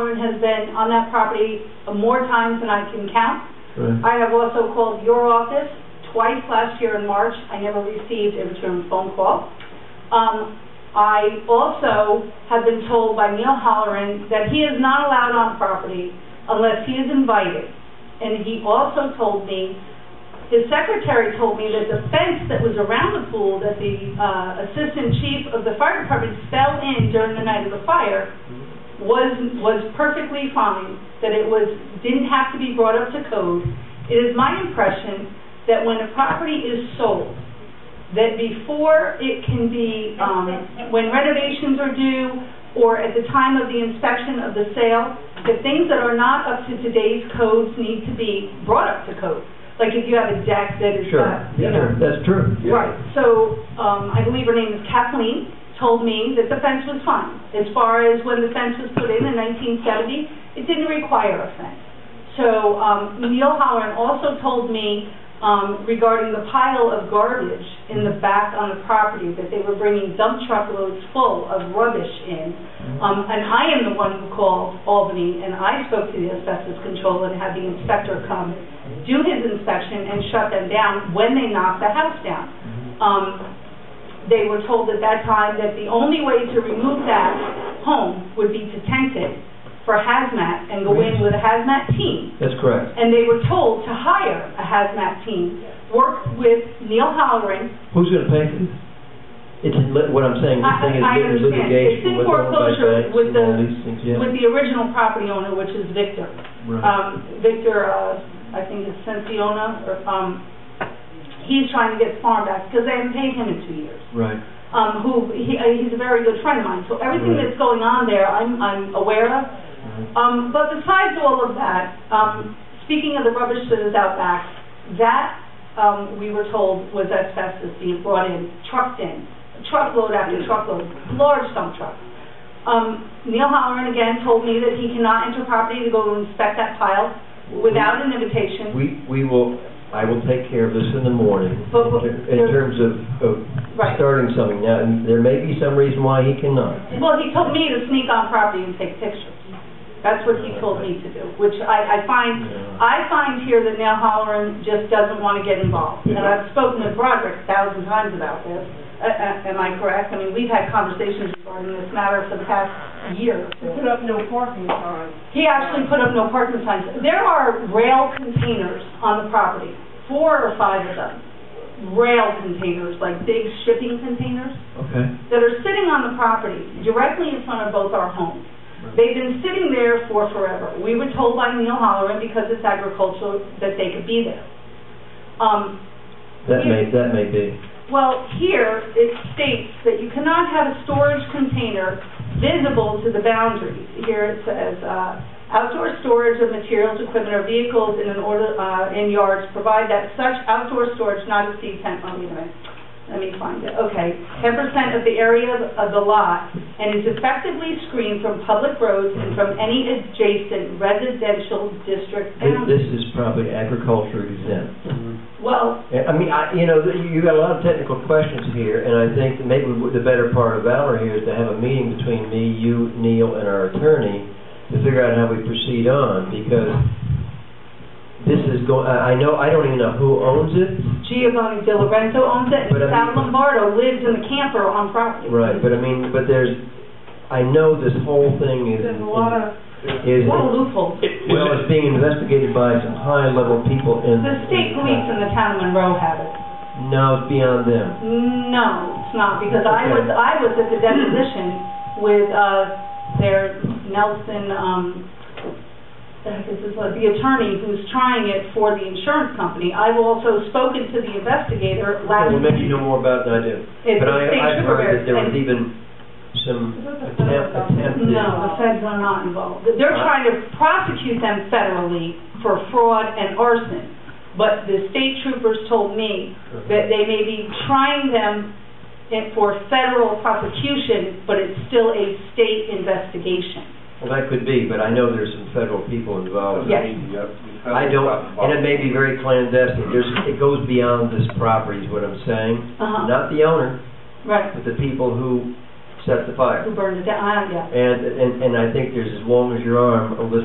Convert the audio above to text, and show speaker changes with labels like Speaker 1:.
Speaker 1: Lauren has been on that property more times than I can count.
Speaker 2: Right.
Speaker 1: I have also called your office twice last year in March. I never received a return phone call. Um, I also have been told by Neil Holloran that he is not allowed on property unless he is invited. And he also told me, his secretary told me that the fence that was around the pool that the uh, assistant chief of the fire department fell in during the night of the fire was, was perfectly fine, that it was, didn't have to be brought up to code. It is my impression that when a property is sold, that before it can be, um, when renovations are due, or at the time of the inspection of the sale, the things that are not up to today's codes need to be brought up to code. Like if you have a deck that is
Speaker 2: Sure,
Speaker 1: not, you know,
Speaker 2: yeah, that's true.
Speaker 1: Right, so, um, I believe her name is Kathleen, told me that the fence was fine. As far as when the fence was put in in nineteen seventy, it didn't require a fence. So, um, Neil Holloran also told me, um, regarding the pile of garbage in the back on the property, that they were bringing dump truck loads full of rubbish in. Um, and I am the one who called Albany, and I spoke to the asbestos control and had the inspector come, do his inspection, and shut them down when they knocked the house down.
Speaker 2: Mm-hmm.
Speaker 1: Um, they were told at that time that the only way to remove that home would be to tent it for hazmat and go in with a hazmat team.
Speaker 2: That's correct.
Speaker 1: And they were told to hire a hazmat team, work with Neil Halloran.
Speaker 2: Who's gonna pay for this? It's in lit, what I'm saying, this
Speaker 1: I-
Speaker 2: thing is
Speaker 1: I
Speaker 2: lit- in
Speaker 1: understand. It's in
Speaker 2: litigation with all the
Speaker 1: foreclosure
Speaker 2: banks
Speaker 1: with
Speaker 2: and all
Speaker 1: the-
Speaker 2: these things,
Speaker 1: with
Speaker 2: yeah.
Speaker 1: the original property owner, which is Victor.
Speaker 2: Right.
Speaker 1: um, Victor, uh, I think it's Cenciona, or, um, he's trying to get his farm back, because they haven't paid him in two years.
Speaker 2: Right,
Speaker 1: Um, who, he, uh, he's a very good friend of mine, so everything
Speaker 2: Right.
Speaker 1: that's going on there, I'm, I'm aware of.
Speaker 2: right.
Speaker 1: Um, but besides all of that, um, speaking of the rubbish that is out back, that, um, we were told was asbestos being brought in, trucked in, truckload after truckload, large dump trucks. Um, Neil Halloran again told me that he cannot enter property to go and inspect that pile without an invitation.
Speaker 2: We, we will, I will take care of this in the morning,
Speaker 1: But- but
Speaker 2: in ter- in
Speaker 1: there-
Speaker 2: terms of, of
Speaker 1: Right.
Speaker 2: starting something now, and there may be some reason why he cannot.
Speaker 1: Well, he told me to sneak on property and take pictures. That's what he told me to do, which I, I find,
Speaker 2: Yeah.
Speaker 1: I find here that Neil Halloran just doesn't want to get involved. And I've spoken to Broderick a thousand times about this. Uh, uh, Am I correct? I mean, we've had conversations regarding this matter for the past year.
Speaker 3: We put up no parking signs.
Speaker 1: He actually put up no parking signs. There are rail containers on the property, four or five of them. Rail containers, like big shipping containers
Speaker 2: Okay.
Speaker 1: that are sitting on the property directly in front of both our homes. They've been sitting there for forever. We were told by Neil Holloran, because it's agricultural, that they could be there. Um,
Speaker 2: That may, that may be.
Speaker 1: well, here, it states that you cannot have a storage container visible to the boundaries. Here it says, uh, outdoor storage of materials, equipment, or vehicles in an order, uh, in yards, provide that such outdoor storage not exceed ten, oh, wait a minute. Let me find it, okay. Ten percent of the area of- of the lot and is effectively screened from public roads and from any adjacent residential district
Speaker 2: This,
Speaker 1: boundaries.
Speaker 2: this is probably agriculture exempt.
Speaker 1: Well,
Speaker 2: Yeah, I mean, I, you know, that you you got a lot of technical questions here, and I think that maybe w- the better part of valor here is to have a meeting between me, you, Neil, and our attorney to figure out how we proceed on, because this is go, I I know, I don't even know who owns it,
Speaker 1: Giovanni De Lorenzo owns it, and
Speaker 2: But I mean-
Speaker 1: Sal Lombardo lives in the camper on property.
Speaker 2: right, but I mean, but there's, I know this whole thing is,
Speaker 3: There's a lot of,
Speaker 2: is,
Speaker 1: What a loophole.
Speaker 2: well, it's being investigated by some high-level people in.
Speaker 1: The state police in the town of Monroe have it.
Speaker 2: No, it's beyond them.
Speaker 1: No, it's not, because I was,
Speaker 2: Okay.
Speaker 1: I was at the deposition with, uh, their Nelson, um, the heck is his, uh, the attorney who's trying it for the insurance company. I've also spoken to the investigator last.
Speaker 2: Well, maybe you know more about it than I do.
Speaker 1: It's
Speaker 2: But I,
Speaker 1: the state
Speaker 2: I've heard that there
Speaker 1: trooper,
Speaker 2: was
Speaker 1: and-
Speaker 2: even some
Speaker 3: Is that the
Speaker 2: attempt, attempt
Speaker 3: federal government?
Speaker 2: to,
Speaker 1: No, the feds are not involved. They're
Speaker 2: Huh?
Speaker 1: trying to prosecute them federally for fraud and arson. But the state troopers told me that they may be trying them in- for federal prosecution, but it's still a state investigation.
Speaker 2: well, that could be, but I know there's some federal people involved.
Speaker 1: Yes.
Speaker 2: I don't, and it may be very clandestine, there's, it goes beyond this property is what I'm saying.
Speaker 1: Uh-huh.
Speaker 2: Not the owner,
Speaker 1: Right.
Speaker 2: but the people who set the fire.
Speaker 1: who burned it down, I don't, yeah.
Speaker 2: And, and, and I think there's, as long as your arm, a little